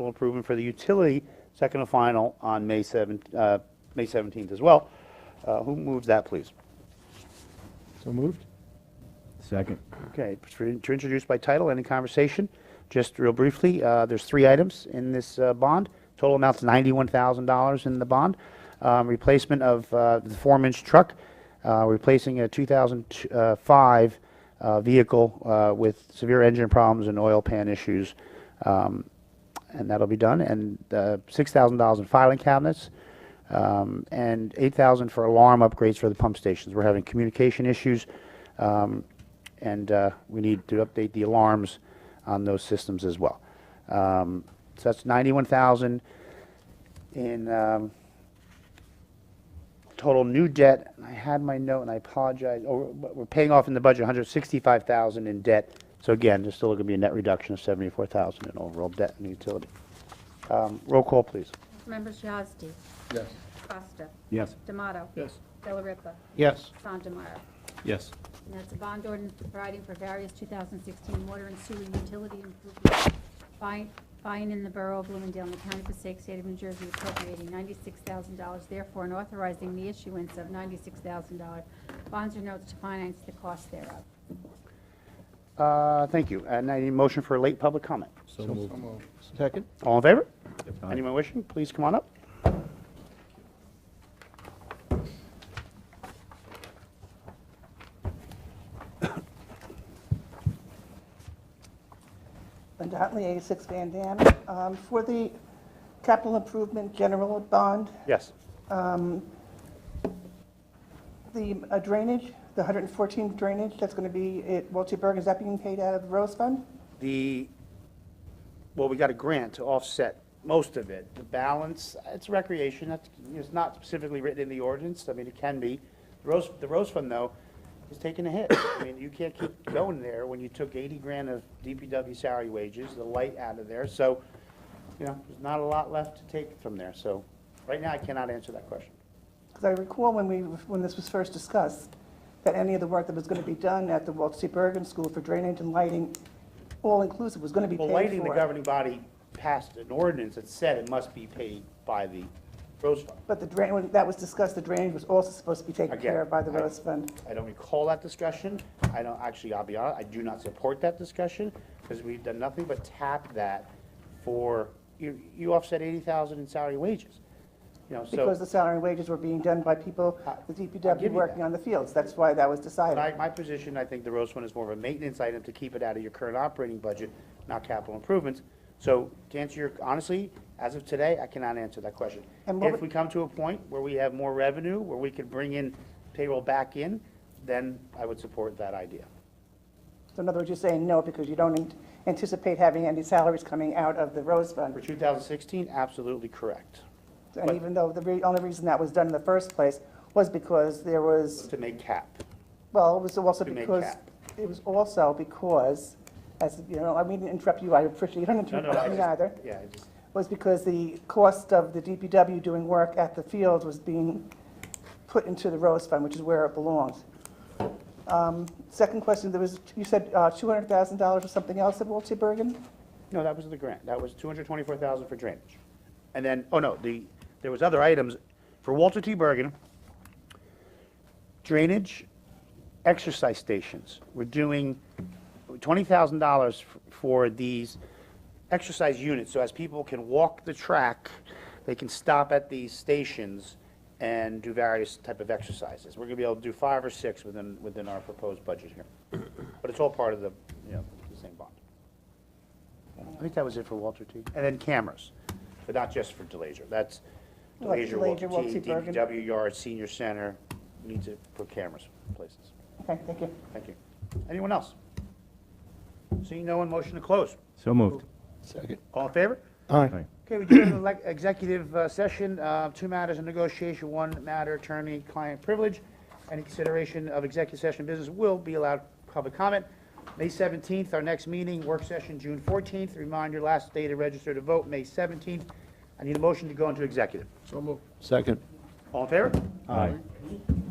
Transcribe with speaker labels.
Speaker 1: capital improvement for the utility, second and final on May 7, uh, May 17th as well. Uh, Who moves that, please?
Speaker 2: So moved?
Speaker 3: Second.
Speaker 1: Okay, to introduce by title, any conversation? Just real briefly, uh, there's three items in this uh, bond. Total amount's $91,000 in the bond. Um, Replacement of uh, the four-inch truck, uh, replacing a 2005 uh, vehicle uh, with severe engine problems and oil pan issues. Um, And that'll be done. And uh, $6,000 in filing cabinets, um, and 8,000 for alarm upgrades for the pump stations. We're having communication issues, um, and uh, we need to update the alarms on those systems as well. Um, So that's 91,000 in um, total new debt. I had my note, and I apologize, oh, we're we're paying off in the budget 165,000 in debt. So again, there's still going to be a net reduction of 74,000 in overall debt and utility. Um, Roll call, please.
Speaker 4: Members Yazdi,
Speaker 2: Yes.
Speaker 4: Costa,
Speaker 3: Yes.
Speaker 4: D'Amato.
Speaker 2: Yes.
Speaker 4: Delariva,
Speaker 1: Yes.
Speaker 4: Sandemeyer.
Speaker 3: Yes.
Speaker 4: And that's a bond ordinance providing for various 2016 water and sewer utility improvements, buying buying in the borough of Bloomingdale in the county of Passaic, state of New Jersey, appropriating $96,000, therefore, and authorizing the issuance of $96,000 bonds or notes to finance the cost thereof.
Speaker 1: Uh, Thank you. And I need a motion for a late public comment.
Speaker 3: So moved.
Speaker 2: Second?
Speaker 1: All in favor?
Speaker 3: Aye.
Speaker 1: Anyone wishing, please come on up.
Speaker 5: Linda Huntley, 86 Van Dam. Um, For the capital improvement general bond,
Speaker 1: Yes.
Speaker 5: the uh, drainage, the 114 drainage, that's going to be at Waltzburg, is that being paid out of the Rose Fund?
Speaker 1: The, well, we got a grant to offset most of it. The balance, it's recreation, that's, it's not specifically written in the ordinance, I mean, it can be. The Rose, the Rose Fund, though, is taking a hit. I mean, you can't keep going there when you took 80 grand of DPW salary wages, the light out of there, so, you know, there's not a lot left to take from there, so, right now, I cannot answer that question.
Speaker 5: Because I recall when we, when this was first discussed, that any of the work that was going to be done at the Waltzburg School for drainage and lighting, all-inclusive, was going to be paid
Speaker 1: Well,
Speaker 5: for.
Speaker 1: lighting, the governing body passed an ordinance that said it must be paid by the Rose Fund.
Speaker 5: But the drain, when that was discussed, the drainage was also supposed to be taken
Speaker 1: Again,
Speaker 5: care of by the
Speaker 1: I-
Speaker 5: Rose Fund.
Speaker 1: I don't recall that discussion. I don't, actually, I'll be honest, I do not support that discussion because we've done nothing but tap that for, you, you offset eighty thousand in salary wages. You know,
Speaker 5: Because
Speaker 1: so
Speaker 5: the salary and wages were being done by people,
Speaker 1: I-
Speaker 5: the
Speaker 1: I'll give you
Speaker 5: DPW working
Speaker 1: that.
Speaker 5: on the fields. That's why that was decided.
Speaker 1: my, my position, I think the roast one is more of a maintenance item to keep it out of your current operating budget, not capital improvements. So to answer your, honestly, as of today, I cannot answer that question.
Speaker 5: And what
Speaker 1: If
Speaker 5: would-
Speaker 1: we come to a point where we have more revenue, where we could bring in payroll back in, then I would support that idea.
Speaker 5: So in other words, you're saying no because you don't ant- anticipate having any salaries coming out of the Rose
Speaker 1: For
Speaker 5: Fund.
Speaker 1: two thousand sixteen, absolutely correct.
Speaker 5: And even though the re- only reason that was done in the first place was because there was,
Speaker 1: to make cap.
Speaker 5: well, it was also
Speaker 1: To make
Speaker 5: because,
Speaker 1: cap.
Speaker 5: it was also because, as, you know, I mean, to interrupt you, I appreciate, you don't
Speaker 1: No, no, I
Speaker 5: interrupt me
Speaker 1: just-
Speaker 5: either,
Speaker 1: Yeah, I just,
Speaker 5: was because the cost of the DPW doing work at the field was being put into the Rose Fund, which is where it belongs. Um, Second question, there was, you said uh, $200,000 or something else at Walter Bergen?
Speaker 1: no, that was the grant. That was two hundred twenty-four thousand for drainage. And then, oh no, the, there was other items for Walter T. Bergen. Drainage, exercise stations. We're doing twenty thousand dollars for these exercise units. So as people can walk the track, they can stop at these stations and do various type of exercises. We're gonna be able to do five or six within, within our proposed budget here. But it's all part of the, you know, the same bond. I think that was it for Walter T. And then cameras, but not just for Delazer. That's
Speaker 5: Like
Speaker 1: Delazer,
Speaker 5: Delazer,
Speaker 1: Walter T,
Speaker 5: Walter Bergen.
Speaker 1: DPW yard, senior center, needs to put cameras in places.
Speaker 5: Okay, thank you.
Speaker 1: Thank you. Anyone else? Seeing no one, motion to close.
Speaker 3: So moved.
Speaker 2: Second.
Speaker 1: All in favor?
Speaker 2: Aye.
Speaker 1: Okay, we do have an elec- executive uh, session, uh, two matters of negotiation, one matter attorney-client privilege. Any consideration of executive session business will be allowed public comment. May 17th, our next meeting, work session, June 14th. Reminder, last day to register to vote, May 17th. I need a motion to go into executive.
Speaker 2: Second.
Speaker 1: All in favor?
Speaker 3: Aye.